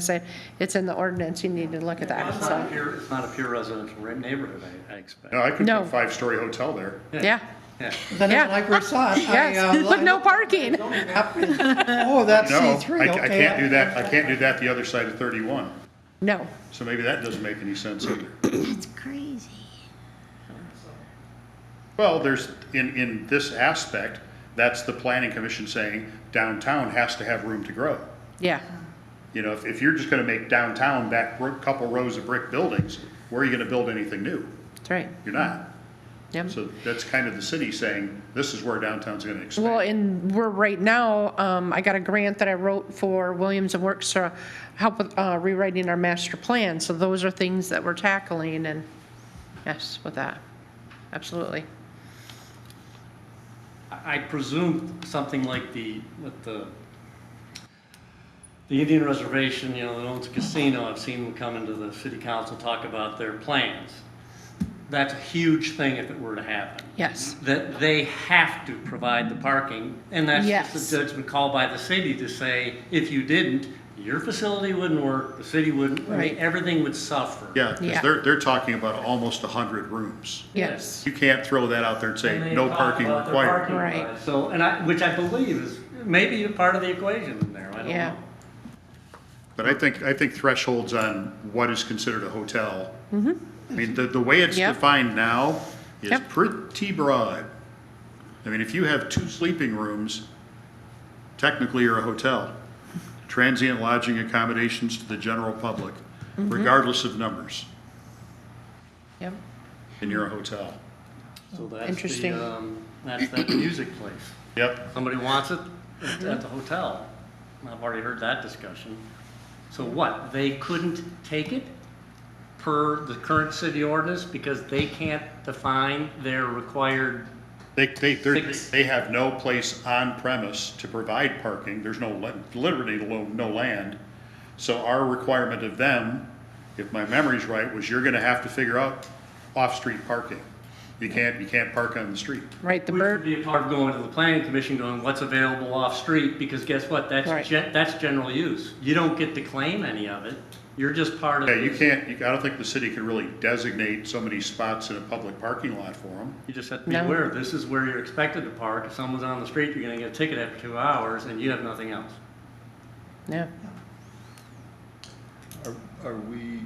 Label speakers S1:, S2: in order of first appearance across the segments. S1: say, it's in the ordinance, you need to look at that,
S2: It's not a
S1: so,
S2: pure, it's not a pure residential re- neighborhood, I, I expect.
S3: No, I could put
S1: No.
S3: a five-story hotel there.
S1: yeah. Oh,
S2: Yeah.
S4: Then
S1: Yeah.
S4: it's like we saw it. I, uh,
S1: Yes, but
S4: lined
S1: no
S4: up the
S1: parking.
S4: zoning map and- Oh, that's
S3: No,
S4: C3,
S3: I,
S4: okay.
S3: I can't do that, I can't do that the other side of thirty-one,
S1: No,
S3: so maybe that doesn't make any sense either.
S5: It's crazy.
S3: Well, there's, in, in this aspect, that's the planning commission saying downtown has to have room to grow.
S1: yeah,
S3: You know, if, if you're just gonna make downtown that bro- couple rows of brick buildings, where are you gonna build anything new?
S1: that's right,
S3: You're not.
S1: yep.
S3: So that's kind of the city saying, this is where downtown's gonna
S1: Well,
S3: expand.
S1: and we're right now, um, I got a grant that I wrote for Williams and Works to help with uh, rewriting our master plan, so those are things that we're tackling and, yes, with that, absolutely.
S2: I I presume something like the, with the, the Indian reservation, you know, that owns a casino, I've seen them come into the city council, talk about their plans. That's a huge thing if it were to happen.
S1: Yes,
S2: That they have to provide the parking, and that's
S1: Yes.
S2: just a judgment call by the city to say, if you didn't, your facility wouldn't work, the city wouldn't, I
S1: Right.
S2: mean, everything would suffer.
S3: Yeah, they
S1: Yeah.
S3: they're, they're talking about almost a hundred rooms.
S1: yes,
S3: You can't throw that out there and
S2: And
S3: say,
S2: they
S3: no
S2: talk
S3: parking
S2: about their
S3: required.
S2: parking
S1: Right.
S2: lot. So, and I, which I believe is maybe a part of the equation in there, I don't
S1: Yeah.
S2: know.
S3: But I think, I think thresholds on what is considered a hotel. I mean, the, the way it's
S1: Mm-hmm. Yep.
S3: defined now is
S1: Yep.
S3: pretty broad. I mean, if you have two sleeping rooms, technically you're a hotel. Transient lodging accommodations to the general public,
S1: Mm-hmm.
S3: regardless of numbers,
S1: yep,
S3: and you're a hotel.
S2: So that's
S1: Interesting.
S2: the, um, that's that music place.
S3: Yep,
S2: Somebody wants it at at the hotel. I've already heard that discussion. So what, they couldn't take it per the current city ordinance because they can't define their required,
S3: they, they, they're-
S2: Six.
S3: they have no place on premise to provide parking, there's no, le- literally no, no land. So our requirement of them, if my memory's right, was you're gonna have to figure out off-street parking. You can't, you can't park on the street.
S1: right, the
S2: which would
S1: bird,
S2: be a part of going to the planning commission, going, what's available off-street? Because guess what,
S1: Right.
S2: that's, gen- that's general use. You don't get to claim any of it. You're just part of.
S3: Yeah, you
S2: the-
S3: can't, you- I don't think the city could really designate so many spots in a public parking lot for them.
S2: You just have to be
S1: No.
S2: aware, this is where you're expected to park. If someone's on the street, you're gonna get a ticket after two hours and you have nothing else.
S1: yeah,
S6: Are, are we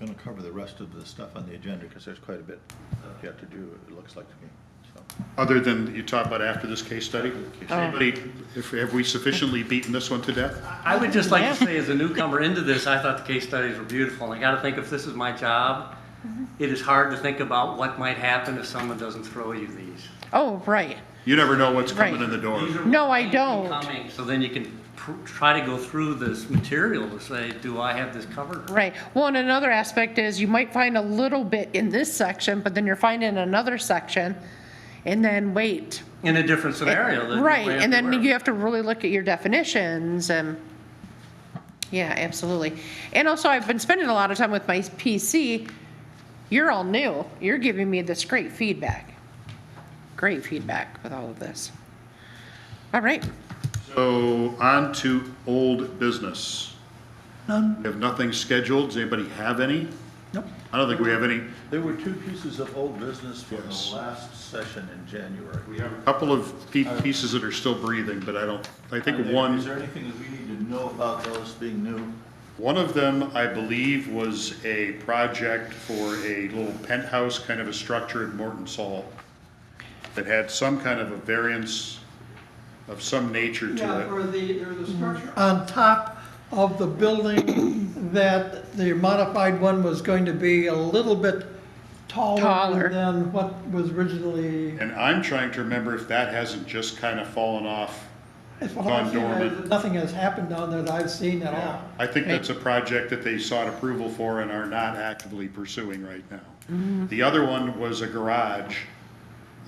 S6: going to cover the rest of the stuff on the agenda, because there's quite a bit that you have to do, it looks like to me, so.
S3: Other than you talk about after this case study, anybody, if, have we sufficiently beaten this one to death?
S2: I would just like to say, as a newcomer into this, I thought the case studies were beautiful. And I gotta think, if this is my job,
S1: Mm-hmm.
S2: it is hard to think about what might happen if someone doesn't throw you these.
S1: oh, right,
S3: You never know what's coming
S1: Right.
S3: in the door.
S2: These are
S1: No, I
S2: things
S1: don't.
S2: coming, So then you can pr- try to go through this material to say, do I have this covered?
S1: right. Well, and another aspect is you might find a little bit in this section, but then you're finding another section, and then wait,
S2: In a different scenario. that you
S1: Right,
S2: might have
S1: and
S2: to
S1: then
S2: work.
S1: you have to really look at your definitions and, yeah, absolutely. And also, I've been spending a lot of time with my PC. You're all new. You're giving me this great feedback. Great feedback with all of this. All right,
S3: So on to old business. None. We have nothing scheduled. Does anybody have any?
S6: Nope.
S3: I don't think we have any.
S6: There were two pieces of old business from
S3: Yes.
S6: the last session in January.
S3: We have a couple of pe- pieces that are still breathing, but I don't, I think
S6: Are there- Is
S3: one,
S6: there anything that we need to know about those being new?
S3: one of them, I believe, was a project for a little penthouse kind of a structure in Morton Saul that had some kind of a variance of some nature
S4: Yeah,
S3: to
S4: or the, or the structure on top of the building that the modified one was going to be a little bit
S1: Taller.
S4: taller than what was originally.
S3: it. And I'm trying to remember if that hasn't just kind of fallen off.
S4: It's what
S3: Gone
S4: I've seen, uh,
S3: dormant.
S4: Nothing has happened down there that I've seen at all.
S3: I think that's a project that they sought approval for and are not actively pursuing right
S1: Mm-hmm.
S3: now. The other one was a garage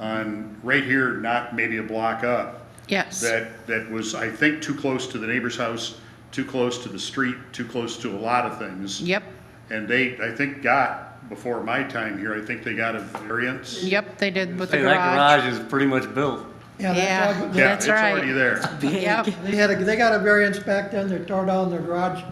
S3: on, right here, not maybe a block up,
S1: yes.
S3: that, that was, I think, too close to the neighbor's house, too close to the street, too close to a lot of things.
S1: Yep,
S3: And they, I think, got, before my time here, I think they got a variance.
S1: yep, they did with the
S2: Say, that
S1: garage.
S2: garage is pretty much built.
S4: Yeah, that's all-
S3: Yeah,
S1: That's
S3: it's
S1: right.
S3: already there.
S1: Yep.
S4: They had, a- they got a variance back then, they tore down their garage